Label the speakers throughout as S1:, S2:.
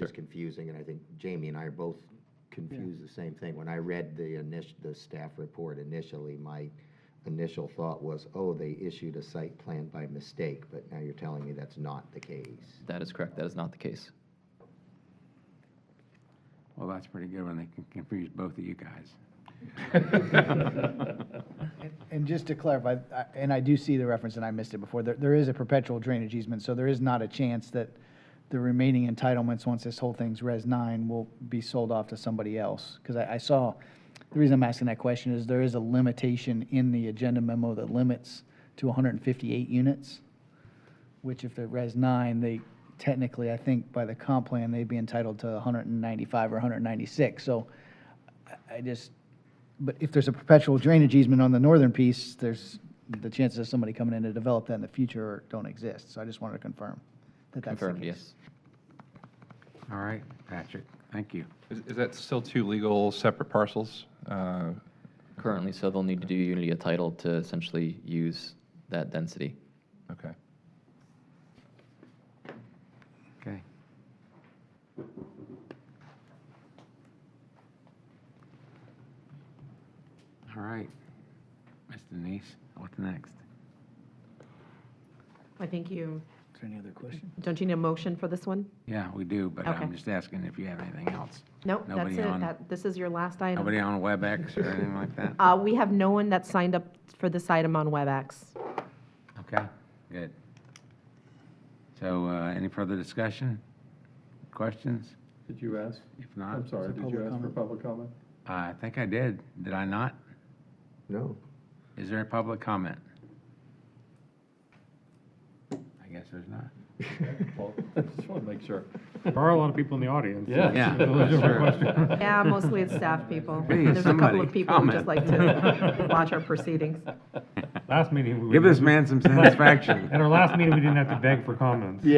S1: it's confusing, and I think Jamie and I are both confused the same thing. When I read the initial, the staff report initially, my initial thought was, oh, they issued a site plan by mistake, but now you're telling me that's not the case.
S2: That is correct. That is not the case.
S3: Well, that's pretty good when they can confuse both of you guys.
S4: And- And just to clarify, I- and I do see the reference, and I missed it before, there, there is a perpetual drainage easement, so there is not a chance that the remaining entitlements, once this whole thing's Res nine, will be sold off to somebody else. Because I, I saw, the reason I'm asking that question is there is a limitation in the agenda memo that limits to hundred and fifty-eight units, which if they're Res nine, they technically, I think by the comp plan, they'd be entitled to hundred and ninety-five or hundred and ninety-six. So I- I just, but if there's a perpetual drainage easement on the northern piece, there's, the chances of somebody coming in to develop that in the future don't exist. So I just wanted to confirm that that's the
S2: Confirmed,
S4: case.
S2: yes.
S3: All right, Patrick, thank you.
S5: Is is that still two legal separate parcels? Uh,
S2: Currently, so they'll need to do unity of title to essentially use that density.
S5: Okay.
S3: Okay. All right, Ms. Denise, what's next?
S6: I think you,
S4: Is there any other question?
S6: don't you need a motion for this one?
S3: Yeah, we do, but I'm
S6: Okay.
S3: just asking if you have anything else.
S6: Nope, that's
S3: Nobody
S6: it.
S3: on-
S6: That- This is your last
S3: Nobody
S6: item.
S3: on WebEx or anything like that?
S6: Uh, We have no one that signed up for this item on WebEx.
S3: Okay, good. So, uh, any further discussion? Questions?
S7: Did you ask?
S3: If not,
S7: I'm sorry, did
S4: public
S7: you ask for
S4: comment?
S7: public comment?
S3: I think I did, did I not?
S1: No?
S3: Is there a public comment? I guess there's not.
S7: Well, I just want to make sure.
S8: There are a lot of people in the audience.
S7: Yeah.
S3: Yeah.
S7: It was a
S3: Sure.
S7: question.
S6: Yeah, mostly it's staff people.
S3: Please,
S6: There's a couple
S3: somebody
S6: of people who just like
S3: comment.
S6: to watch our proceedings.
S8: Last meeting. we-
S3: Give this man some satisfaction.
S8: At our last meeting, we didn't have to beg for comments.
S3: No.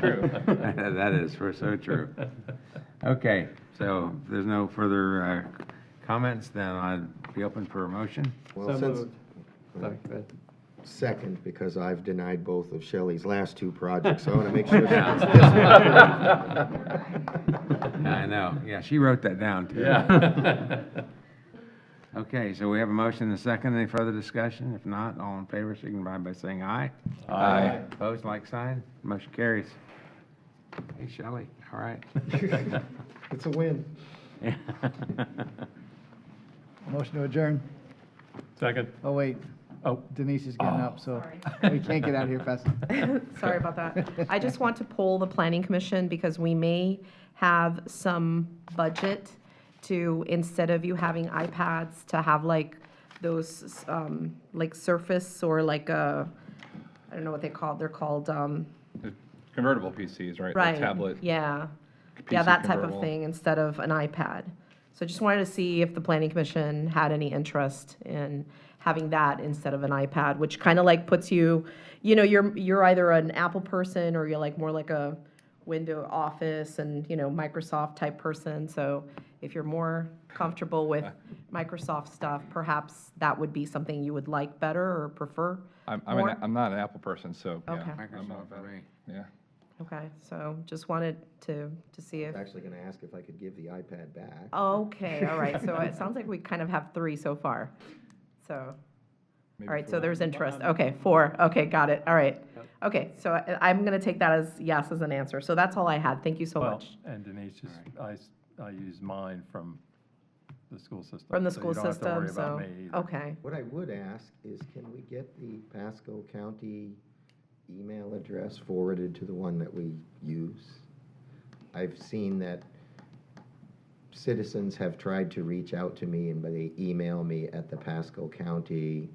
S7: True.
S3: That is, for so true. Okay, so if there's no further uh, comments, then I'd be open for a motion.
S1: Well,
S7: So
S1: since-
S7: moved. Sorry, go ahead.
S1: Second, because I've denied both of Shelley's last two projects, so I want to make sure she gets this
S3: I know, yeah, she wrote that down, too.
S7: Yeah.
S3: Okay, so we have a motion and a second. Any further discussion? If not, all in favor, signify by saying aye.
S7: Aye.
S3: Opposed, like sign. Motion carries. Hey, Shelley, all right.
S1: It's a win.
S4: Motion to adjourn.
S7: Second.
S4: Oh, wait.
S7: Oh.
S4: Denise is getting up, so we can't get out of here fast.
S6: Sorry about that. I just want to poll the planning commission because we may have some budget to, instead of you having iPads, to have like those, um, like Surface or like a, I don't know what they call, they're called, um,
S5: Convertible PCs, right?
S6: right?
S5: Like Tablet.
S6: Yeah. Yeah,
S5: PC
S6: that type of
S5: convertible.
S6: thing instead of an iPad. So just wanted to see if the planning commission had any interest in having that instead of an iPad, which kind of like puts you, you know, you're, you're either an Apple person or you're like more like a window office and, you know, Microsoft type person. So if you're more comfortable with Microsoft stuff, perhaps that would be something you would like better or prefer.
S5: I'm, I'm, an-
S6: More?
S5: I'm not an Apple person, so. yeah,
S6: Okay.
S5: I'm not
S3: Microsoft,
S5: about-
S3: right.
S5: Yeah.
S6: Okay, so just wanted to, to see if.
S1: I was actually going to ask if I could give the iPad back.
S6: Okay, all right, so it sounds like we kind of have three so far. So, all
S5: Maybe
S6: right, so there's interest, okay, four, okay, got it, all right. Okay, so I- I'm going to take that as yes as an answer, so that's all I had, thank you so
S7: Well,
S6: much.
S7: and Denise, just, I, s- I use mine from the school system.
S6: From the
S7: so
S6: school
S7: You
S6: system,
S7: don't have to worry
S6: so,
S7: about me either.
S6: okay.
S1: What I would ask is, can we get the Pasco County email address forwarded to the one that we use? I've seen that citizens have tried to reach out to me and they email me at the Pasco County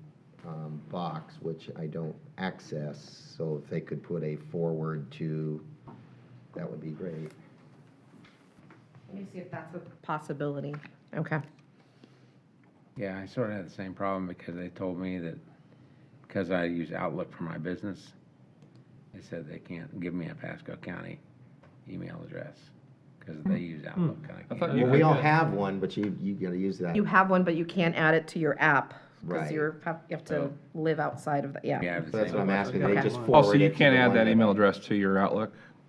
S1: um, box, which I don't access, so if they could put a forward to, that would be great.
S6: Let me see if that's a possibility. Okay,
S3: Yeah, I sort of had the same problem because they told me that because I use Outlook for my business, they said they can't give me a Pasco County email address because they use Outlook. and I
S5: I thought
S3: can't.
S5: you
S1: Well, we all
S5: could-
S1: have one, but you, you gotta use that.
S6: you have one, but you can't add it to your app, because
S1: Right.
S6: you're, you have to live outside of, the yeah.
S3: Yeah, I have the
S1: So that's
S3: same-
S1: what I'm asking, they just forward
S5: Oh, so
S1: it
S5: you
S1: to
S5: can't
S1: the
S5: add
S1: one
S5: that email address to your Outlook?